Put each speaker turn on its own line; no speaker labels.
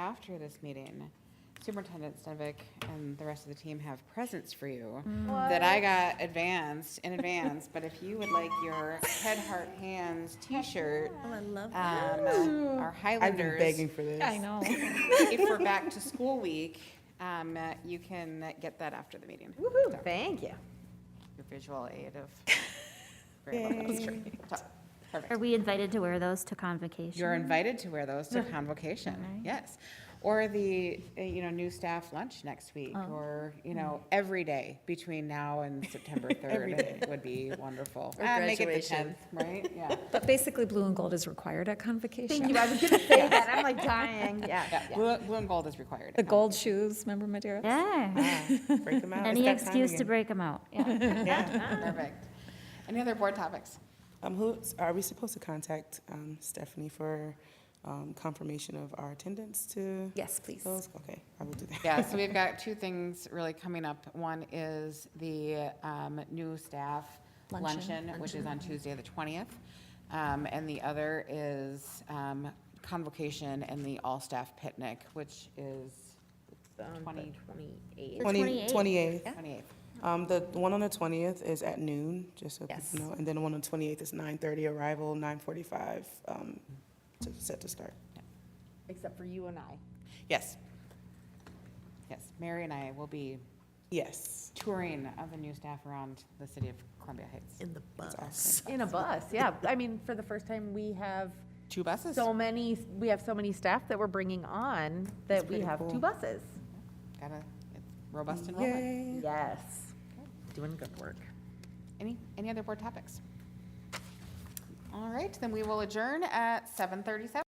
after this meeting, Superintendent Stenvick and the rest of the team have presents for you
Mm.
that I got advanced, in advance, but if you would like your Head, Heart, Hands t-shirt,
Oh, I love
um, our
I've been begging
Highlanders,
for this.
I know.
if we're back to school week, um, uh, you can get that after the meeting. So,
Thank you.
Your visual aid of. Great. Top. Perfect.
Are we invited to wear those to convocation?
You're invited to wear those to convocation, yes. Or the, uh, you know, new staff lunch next week, or, you know, every day between now and September 3rd would be wonderful.
Or
Ah, Make it the
graduation.
10th, right? Yeah.
But basically, blue and gold is required at convocation.
Thank you, I was gonna say that, I'm like dying, yeah.
Yeah, Blue blue and gold is required.
The gold shoes, remember Madeira?
Yeah.
Break them out. It's
Any
that time
excuse to
again.
break them out. Yeah.
Perfect. Any other board topics?
Um, who, are we supposed to contact, um, Stephanie for, um, confirmation of our attendance to?
Yes, please.
Those, okay, I will do that.
Yeah, so we've got two things really coming up. One is the um, new staff luncheon, which is on Tuesday, the 20th. Um, And the other is um, convocation and the all-staff picnic, which is
Twenty twenty-eight.
The 28th.
Twenty-eighth.
28th.
Um, the one on the twentieth is at noon, just so
Yes.
people know, and then the one on the twenty-eighth is nine-thirty arrival, nine-forty-five, um, to, set to start.
Except for you and I.
Yes,
Yes, Mary and I will be
yes.
touring of the new staff around the city of Columbia Heights.
In the bus.
In a bus, yeah. I mean, for the first time, we have
Two buses?
so many, we have so many staff that we're bringing on that we
pretty
have
cool.
two buses.
Gotta, it's robust enrollment.
Yay.
Yes. Doing good work.
Any, any other board topics? All right, then we will adjourn at 7:37.